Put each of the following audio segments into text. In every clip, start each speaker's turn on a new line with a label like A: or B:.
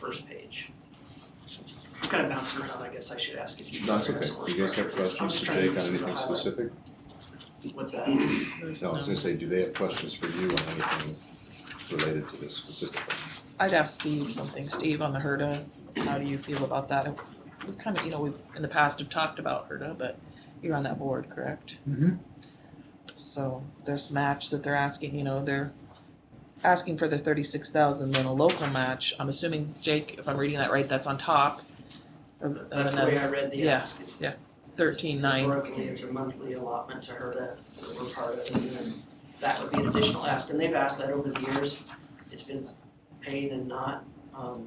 A: first page. Kind of bouncing around, I guess I should ask if you.
B: That's
A: have
B: okay. You guys have questions for
A: I'm just
B: Jake on
A: trying to
B: anything
A: highlight.
B: specific?
A: What's that?
B: No, I was gonna say, do they have questions for you on anything related to this specifically?
C: I'd ask Steve something. Steve on the HERDA, how do you feel about that? We've kind of, you know, we've, in the past have talked about HERDA, but you're on that board, correct?
A: Mm-hmm.
D: Mhm.
C: So this match that they're asking, you know, they're asking for the thirty-six thousand, then a local match. I'm assuming, Jake, if I'm reading that right, that's on top of of
A: That's the way
C: another
A: I read the
C: Yeah.
A: ask. is-
C: thirteen-nine.
A: Historically, it's a monthly allotment to her that that we're part of, and then that would be an additional ask, and they've asked that over the years. It's been paid and not, um,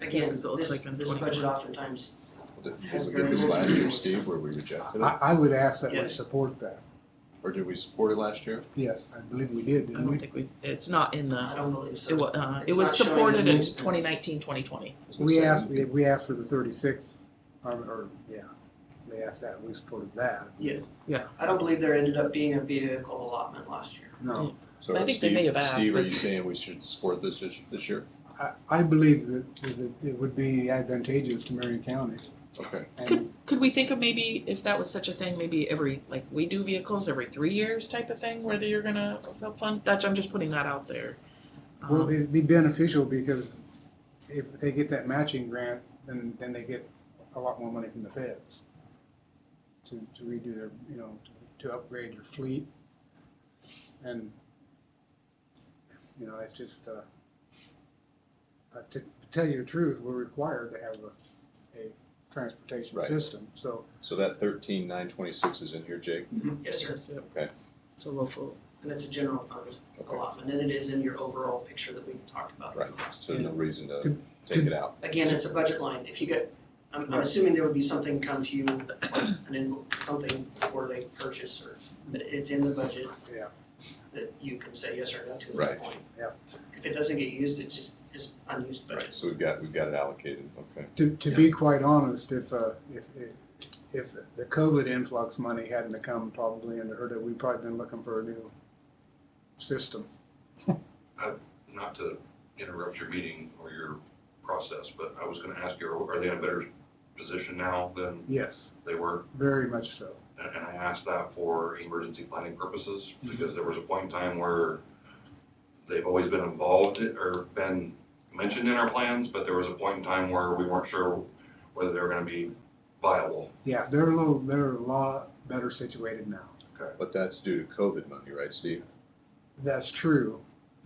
C: Yeah,
A: again,
C: 'cause Mm-hmm. it looks
A: this,
C: like in
A: this
C: 20
A: budget oftentimes,
B: Did we get this last year, Steve, where we rejected
D: I,
B: it?
D: I would ask that we
A: Yes.
D: support that.
B: Or did we support it last year?
D: Yes, I believe we did,
C: I
D: didn't
C: don't
D: we?
C: think we, it's not in
A: I
C: the,
A: don't believe so.
C: it was, uh, it
A: It's
C: was
A: not showing
C: supported in
A: as an expense.
C: 2019-2020.
B: I was gonna
D: We
B: say,
D: asked, we asked for the thirty-six, or, or, yeah, they asked that, we supported that.
A: Yes.
C: Yeah.
A: I don't believe there ended up being a vehicle allotment last year.
D: No,
B: So
C: I think they may
B: Steve-
C: have asked,
B: Steve, are
C: but-
B: you saying we should support this issue this year?
D: I, I believe that, that it would be advantageous to Marion County.
B: Okay,
C: Could,
D: And
C: could we think of maybe, if that was such a thing, maybe every, like, we do vehicles every three years type of thing, whether you're gonna help fund, that's, I'm just putting that out there.
D: well,
C: Um,
D: it'd be beneficial because if they get that matching grant, then, then they get a lot more money from the feds to, to redo their, you know, to upgrade your fleet. And, you know, it's just, uh, uh, to to tell you the truth, we're required to have a, a transportation
B: Right.
D: system, so.
B: so that thirteen nine twenty-six is in here, Jake?
A: Yes, sir,
C: Mm-hmm. that's it.
B: Okay.
C: It's a local,
A: and it's a general fund
B: Okay.
A: allotment, and it is in your overall picture that we talked about.
B: Right, so no reason to
D: To-
B: take it out.
A: Again, it's a budget line, if you get, I'm, I'm assuming there would be something come to you, and then something for they purchase, or, but it's in the budget.
D: Yeah.
A: That you can say yes or no to at
B: Right.
A: that point.
D: Yeah.
A: If it doesn't get used, it just is unused
B: Right,
A: budget.
B: so we've got, we've got it allocated, okay.
D: To, to be quite honest, if, uh, if, if- if the COVID influx money hadn't have come probably into HERDA, we'd probably been looking for a new system.
E: not to interrupt your meeting or your process, but I was gonna ask you, are they in a better position now than
D: Yes,
E: they were?
D: very much so.
E: And and I asked that for emergency planning purposes, because there was a point in time where they've always been involved in- or been mentioned in our plans, but there was a point in time where we weren't sure whether they were gonna be viable.
D: Yeah, they're a little, they're a lot better situated now.
B: But that's due to COVID money, right, Steve?
D: That's true,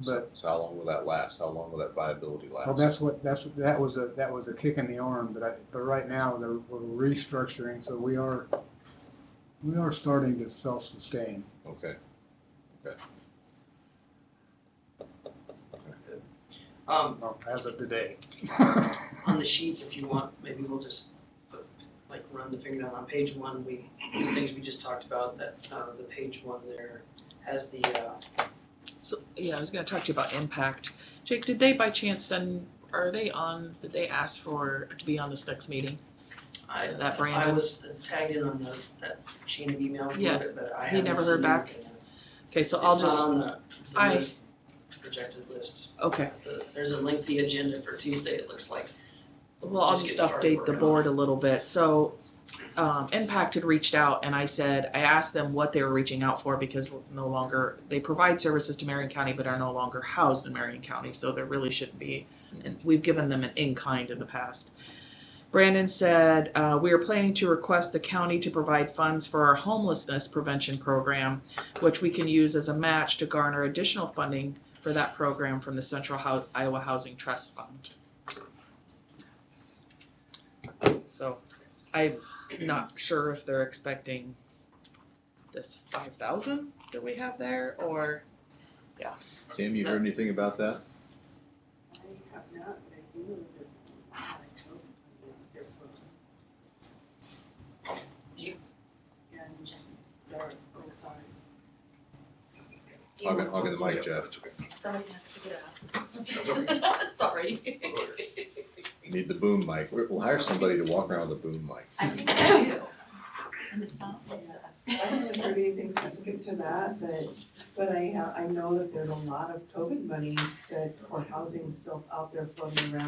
D: but,
B: So how long will that last? How long will that viability last?
D: well, that's what, that's, that was a, that was a kick in the arm, but I, but right now, they're, we're restructuring, so we are, we are starting to self-sustain.
B: Okay,
A: Um,
D: well, As of today.
A: on the sheets, if you want, maybe we'll just put, like, run the finger down on page one, we, the things we just talked about, that, uh, the page one there has the, uh,
C: so, yeah, I was gonna talk to you about impact. Jake, did they by chance send, are they on, did they ask for, to be on this next meeting?
A: I,
C: That
A: I
C: Brandon?
A: was tagged in on those, that chain of emails,
C: Yeah.
A: but I haven't
C: He never heard
A: seen
C: back.
A: anything.
C: Okay, so I'll
A: It's not
C: just,
A: on the, the
C: I-
A: list, projected list.
C: okay.
A: The- There's a lengthy agenda for Tuesday, it looks like.
C: Well, I'll
A: Just
C: just
A: get started
C: update the
A: working on
C: board a little bit. So, um, Impact had reached out and I said, I asked them what they were reaching out for because we're no longer, they provide services to Marion County but are no longer housed in Marion County, so there really shouldn't be. And we've given them an in-kind in the past. Brandon said, uh, we are planning to request the county to provide funds for our homelessness prevention program, which we can use as a match to garner additional funding for that program from the Central Hou- Iowa Housing Trust Fund. So I'm not sure if they're expecting this five thousand that we have there or,
B: Tim, you heard anything about that?
F: I have not, but I do know that there's a lot of children on their phone.
A: You-
F: And they're, oh, sorry.
B: I'll get, I'll get the mic, Jeff.
G: Somebody has to get up. Sorry.
B: Need the boom mic. We- We'll hire somebody to walk around with a boom mic.
G: I think I do. And it's not just that.
F: I haven't heard anything specific to that, but, but I have, I know that there's a lot of COVID money that, for housing still out there floating around.